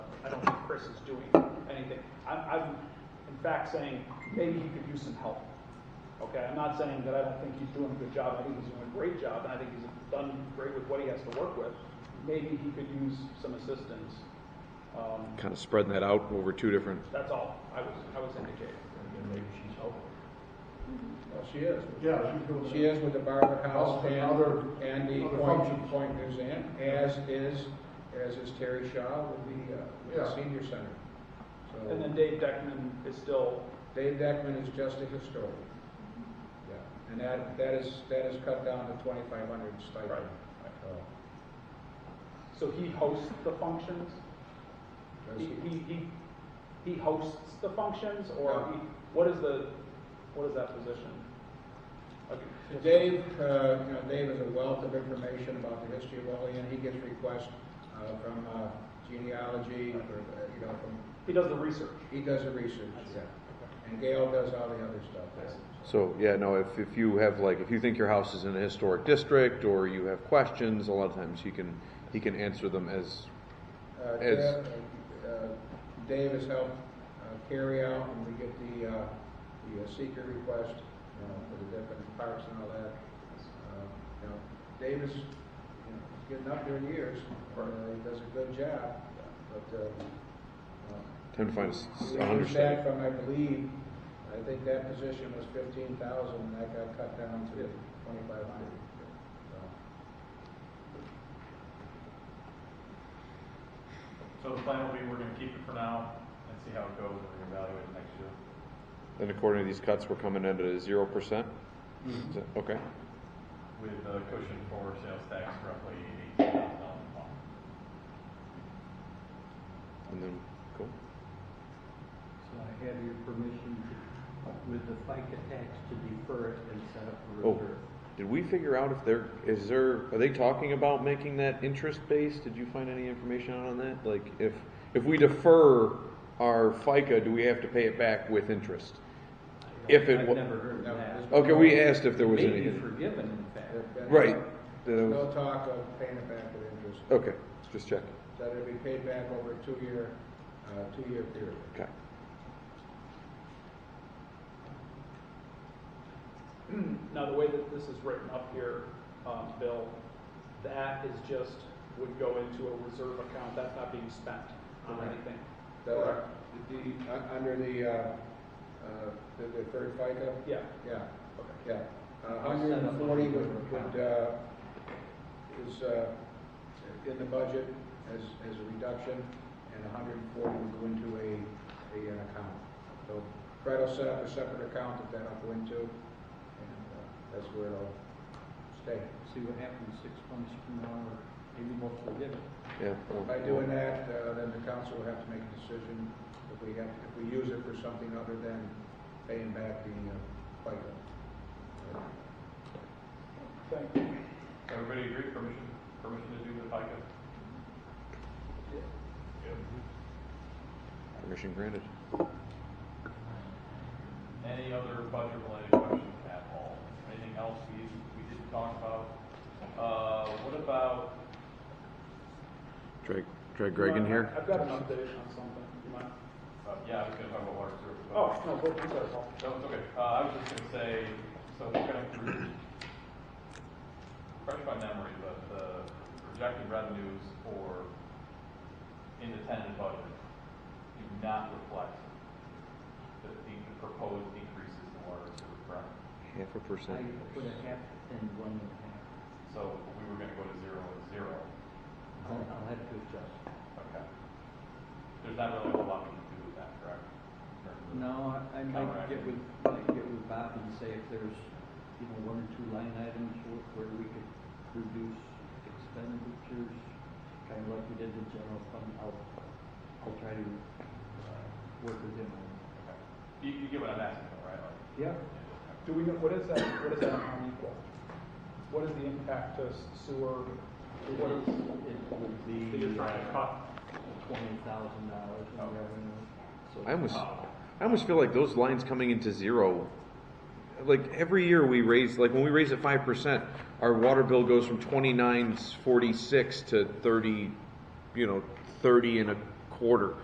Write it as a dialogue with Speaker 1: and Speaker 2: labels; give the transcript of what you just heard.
Speaker 1: Chris is doing anything. I'm, I'm in fact saying, maybe he could use some help. Okay, I'm not saying that I don't think he's doing a good job, I think he's doing a great job, and I think he's done great with what he has to work with. Maybe he could use some assistance. Um,
Speaker 2: Kind of spreading that out over two different,
Speaker 1: that's all I was, I was indicating.
Speaker 3: Maybe she's helping.
Speaker 4: Well, she is.
Speaker 3: Yeah, she's doing
Speaker 4: She is with the Barber House
Speaker 3: House and
Speaker 4: and,
Speaker 3: other-
Speaker 4: and the
Speaker 3: other
Speaker 4: Point,
Speaker 3: functions.
Speaker 4: Point Museum, as is, as is Terry Shaw with the, uh, with
Speaker 3: Yeah.
Speaker 4: the senior center.
Speaker 1: And then
Speaker 4: So
Speaker 1: Dave Deckman is still,
Speaker 4: Dave Deckman is just a historian. Yeah, and that, that is, that is cut down to twenty-five hundred stipend.
Speaker 1: Right.
Speaker 4: So,
Speaker 1: so he hosts the functions?
Speaker 4: does
Speaker 1: He,
Speaker 4: he-
Speaker 1: he, he, he hosts the functions, or
Speaker 4: Yeah.
Speaker 1: he, what is the, what is that position? Okay.
Speaker 4: Dave, uh, you know, Dave is a wealth of information about the history of Olean. He gets requests uh, from uh, genealogy, or, uh, you know, from,
Speaker 1: He does the research.
Speaker 4: he does the research, yeah. And Gail does all the other stuff. yeah.
Speaker 2: so, yeah, no, if, if you have like, if you think your house is in a historic district or you have questions, a lot of times he can, he can answer them as,
Speaker 4: Uh,
Speaker 2: As-
Speaker 4: Gail- uh, uh, Dave has helped uh, carry out, and we get the, uh, the uh, seeker request, you know, for the different parks and all that. Uh, You know, Dave is, you know, he's getting up there in years, uh, he does a good job, but, uh, uh,
Speaker 2: tend to find a-
Speaker 4: We
Speaker 2: a hundred
Speaker 4: reduced
Speaker 2: percent.
Speaker 4: that from, I believe, I think that position was fifteen thousand, and that got cut down to twenty-five hundred.
Speaker 5: So the plan will be, we're gonna keep it for now and see how it goes, and we're gonna evaluate it next year.
Speaker 2: And according to these cuts, we're coming in at a zero percent?
Speaker 6: Mm-hmm.
Speaker 2: Is that- Okay,
Speaker 5: With the cushion for sales tax roughly eighteen thousand dollars a month.
Speaker 2: and then, cool.
Speaker 6: So I have your permission to- with the FICA tax to defer it and set up a
Speaker 2: Oh.
Speaker 6: reserve.
Speaker 2: Did we figure out if there, is there, are they talking about making that interest-based? Did you find any information out on that? Like, if, if we defer our FICA, do we have to pay it back with interest?
Speaker 6: I don't-
Speaker 2: If it wa-
Speaker 6: I've never heard
Speaker 4: No,
Speaker 6: of that.
Speaker 4: it's-
Speaker 2: Okay, we asked if there was
Speaker 6: May be
Speaker 2: any,
Speaker 6: forgiven, in fact.
Speaker 4: So,
Speaker 2: right, That was-
Speaker 4: No talk of paying it back with interest,
Speaker 2: okay, just checking,
Speaker 4: that it'll be paid back over a two-year, uh, two-year period.
Speaker 2: okay.
Speaker 1: Now, the way that this is written up here, um, Bill, that is just, would go into a reserve account, that's not being spent on
Speaker 4: Correct.
Speaker 1: anything.
Speaker 4: The, the, uh, under the, uh, uh, the deferred FICA,
Speaker 1: Yeah,
Speaker 4: yeah,
Speaker 1: okay.
Speaker 4: yeah. A hundred and forty would, would, uh, is, uh, in the budget as, as a reduction, and a hundred and forty would go into a, a, an account. So Fred will set up a separate account that that'll go into, and uh, that's where it'll stay.
Speaker 6: See what happens six months from now, or maybe we'll forgive it.
Speaker 2: Yeah. well,
Speaker 4: By doing that, uh, then the council will have to make a decision if we have, if we use it for something other than paying back the, uh, FICA.
Speaker 1: Thank you.
Speaker 5: Everybody agree, permission, permission to do the FICA?
Speaker 2: Permission granted.
Speaker 5: Any other budget related questions at all? Anything else we, we didn't talk about? Uh, what about,
Speaker 2: Drag, drag Greg in here?
Speaker 1: I've got an update on something, you mind?
Speaker 5: uh, yeah, I was gonna talk about water service. but-
Speaker 1: Oh, no, go, I'm sorry, Paul.
Speaker 5: No, it's okay. Uh, I was just gonna say, so we're gonna, fresh by memory, but the projected revenues for independent budget do not reflect the, the proposed increases in water and sewer, correct?
Speaker 2: Half a
Speaker 6: I
Speaker 2: percent.
Speaker 6: put a half and one and a
Speaker 5: So we were gonna go to zero and zero.
Speaker 6: half. I'll, I'll have to adjust.
Speaker 5: Okay. There's not really a whole lot we can do with that, correct? In terms of-
Speaker 6: No, I, I might get with, might get with Bob and say if there's, you know, one or two line items where- where we could reduce expenditures, kind of like we did the general fund, I'll, I'll try to, uh, work with him on it.
Speaker 5: Okay. You, you get what I'm asking, though, right? Like,
Speaker 6: Yeah.
Speaker 5: yeah,
Speaker 1: Do we know, what is that, what is that amount equal? What is the impact to sewer, what is,
Speaker 6: It would be.
Speaker 1: that you're trying to cut?
Speaker 6: Twenty thousand dollars in revenue. So
Speaker 2: I almost, I almost feel like those lines coming into zero, like every year we raise, like when we raise it five percent, our water bill goes from twenty-nine forty-six to thirty, you know, thirty and a quarter.